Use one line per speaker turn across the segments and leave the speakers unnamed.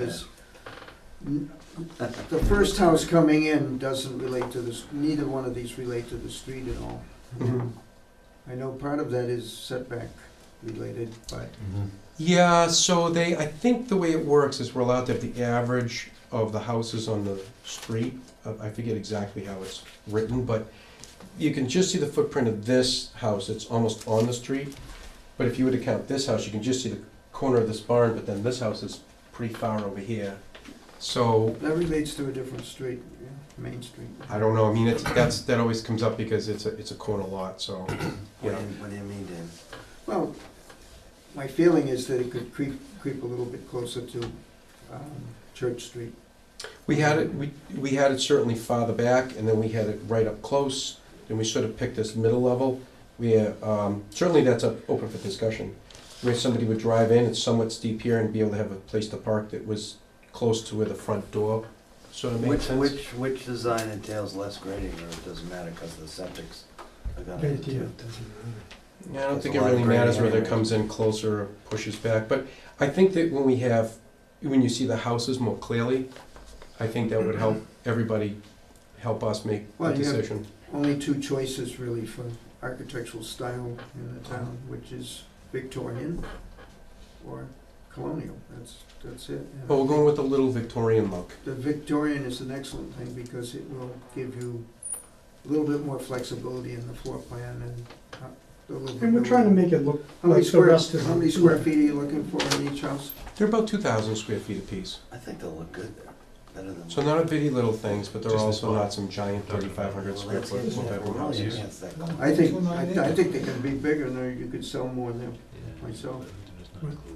Because the first house coming in doesn't relate to this, neither one of these relate to the street at all. I know part of that is setback related, but
Yeah, so they, I think the way it works is we're allowed to have the average of the houses on the street. Uh, I forget exactly how it's written, but you can just see the footprint of this house, it's almost on the street. But if you were to count this house, you can just see the corner of this barn, but then this house is pretty far over here. So,
that relates to a different street, yeah, Main Street.
I don't know, I mean, it's, that's, that always comes up because it's a, it's a corner lot, so, you
What do
know.
you, what do you mean, Dan?
Well, my feeling is that it could creep, creep a little bit closer to um, Church Street.
We had it, we, we had it certainly farther back, and then we had it right up close, and we sort of picked this middle level. We, uh, um, certainly that's up, open for discussion. Where somebody would drive in, it's somewhat steep here, and be able to have a place to park that was close to where the front door sort of made
Which,
sense.
which, which design entails less grading, or it doesn't matter, cause the septics are gonna
Great
hit
deal,
too?
doesn't matter.
Yeah, I don't think
There's a
it
lot of
really matters
grading
whether it
anyway.
comes in closer or pushes back, but I think that when we have, when you see the houses more clearly, I think that would help everybody, help us make a
Well, you have-
decision.
Only two choices really for architectural style in the town, which is Victorian or colonial. That's, that's it. And I
But we're
think-
going with the little Victorian look.
The Victorian is an excellent thing because it will give you a little bit more flexibility in the floor plan and uh, the livability.
And we're trying to make it look
How many
like the
square,
rest of
how many
the
square feet are you looking for in each house?
They're about two thousand square feet apiece,
I think they'll look good there, better than.
so not a bitty little things, but they're
Just
also
the-
not some giant
Well,
thirty-five hundred square
that's
foot
it, yeah,
multi-room
really,
houses.
that's that close.
I think,
Well, no, I
I I think they can be bigger and there you could sell more than myself.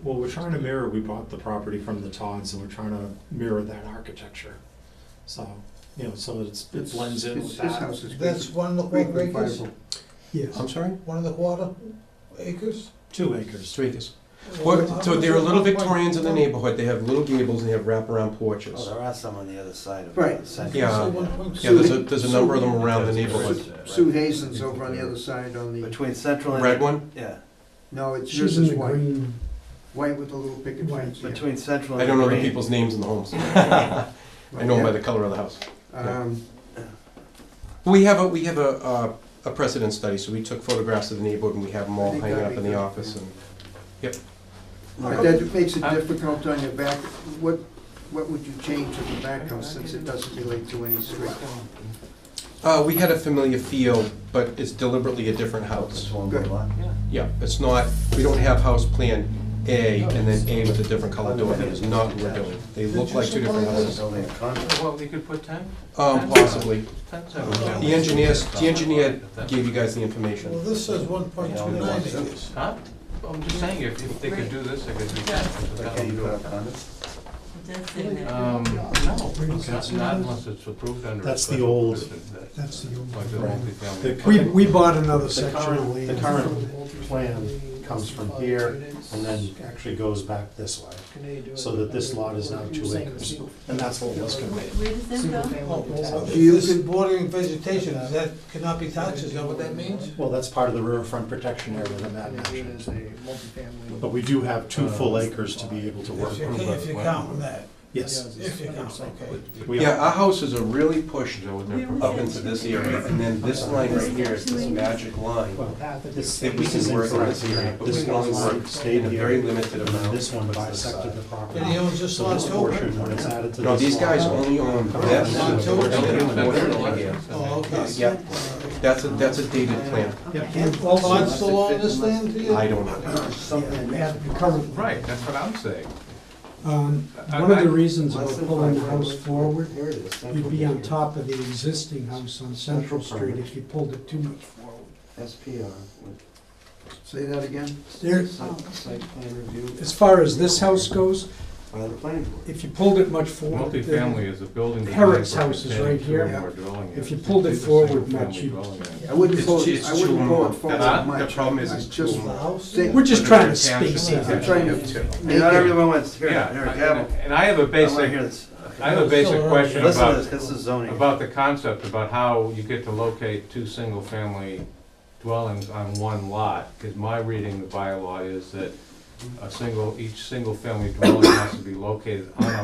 Well, we're trying to mirror, we bought the property from the Tons and we're trying to mirror that architecture. So, you know, so it's, it blends in with
This this
that.
house is
That's
great.
one of the
Great
quarter
and
acres,
viable.
Yes,
I'm sorry,
one of the quarter acres?
Two acres.
Streeters. Well, so there are little Victorians in the neighborhood, they have little gables and they have wraparound
Oh,
porches.
there are some on the other side of
Right.
the center.
Yeah.
So one point
Yeah, there's a, there's a number of them around the neighborhood.
Sue- Sue Hazen's over on the other side on the,
Between central and.
Red one?
Yeah,
no, it's yours
she's in
is
the
white,
green,
white with a little picket
White.
fence. yeah.
between central and.
I don't know the
green.
people's names in the homes. I know them by the color of the house.
Oh, Um,
We have a, we have a, uh, a precedent study, so we took photographs of the neighborhood and we have them
I
all
think
hanging up
that'd
in
be
the
good,
office
yeah.
and.
But that makes it difficult on your back, what, what would you change in the back house since it doesn't relate to any street?
Uh, we had a familiar feel, but it's deliberately a different house.
This one,
Good.
lot.
Yeah, it's not, we don't have house plan A and then A with a different color door, that is not what we're doing. They look like two different houses.
building a condo.
Well, we could put ten,
Um, possibly.
tens
Oh,
The engineers, the engineer gave you guys the
Well,
information.
this says one point two nine acres.
Huh? I'm just saying, if, if they could do this, they could do
But can you put up
that.
condos?
Um, no,
Okay.
not not unless it's approved under. a
That's the
special
old-
permit, that-
that's the old
Like the
one.
multifamily.
We, we bought another
The
section
current-
of land.
the current plan comes from here And then actually goes back this way, so that this lot is now two acres. And that's what was conveyed.
Where does this go?
Do you
Oh, This
con-
bordering vegetation, is that cannot be touched, is that what that means?
Well, that's part of the riverfront protection area that Matt mentioned. But we do have two full acres to be able to work
If you,
with.
if you count that,
Yes.
if you count, okay.
we
Yeah,
are.
our houses are really pushed up into this area, and then this line right here is this magic line.
Well, this-
That we
this is
can work on
incorrect
this area, but we
This
can only
one
work
stayed
in a
here,
very limited
and
amount.
This one bisected the property.
And he owns this
So
lot
this
too?
portion, when it's added to
No,
this
these guys
lot-
only own this.
Lot two?
and then the portion over here.
Oh, okay.
Yeah, that's a, that's a dated plan.
And all lots still own this land to you?
I don't know.
Yeah, we have the current.
Right, that's what I'm saying.
Um,
I-
One of
I-
the reasons
Less
about
than
pulling
five
the house
acres.
forward,
Here it is, central
you'd be on
acre.
top of the existing house on Central Street if you pulled it too much forward.
SPR,
Say that again?
There,
site, site plan review
as far as this house goes,
by the planning board.
if you pulled it much forward. then-
Multifamily is a building.
Herrick's house is right here. If you pulled it forward much, you-
We're
I wouldn't
It's
pull,
ju- it's
I wouldn't pull it
too
forward
long.
much.
The problem is it's
I
too
just
long.
The house?
Think-
We're just trying to
Township
space it
section
out.
trying
of two.
make
Not
it-
everyone wants, here,
Yeah,
here,
I-
gavel.
and I have a
I wanna
basic,
hear this.
I have a basic question about.
Listen to this, this is zoning.
about the concept, about how you get to locate two single-family dwellings on one lot, because my reading of the bylaw is that a single, each single-family dwelling has to be located on a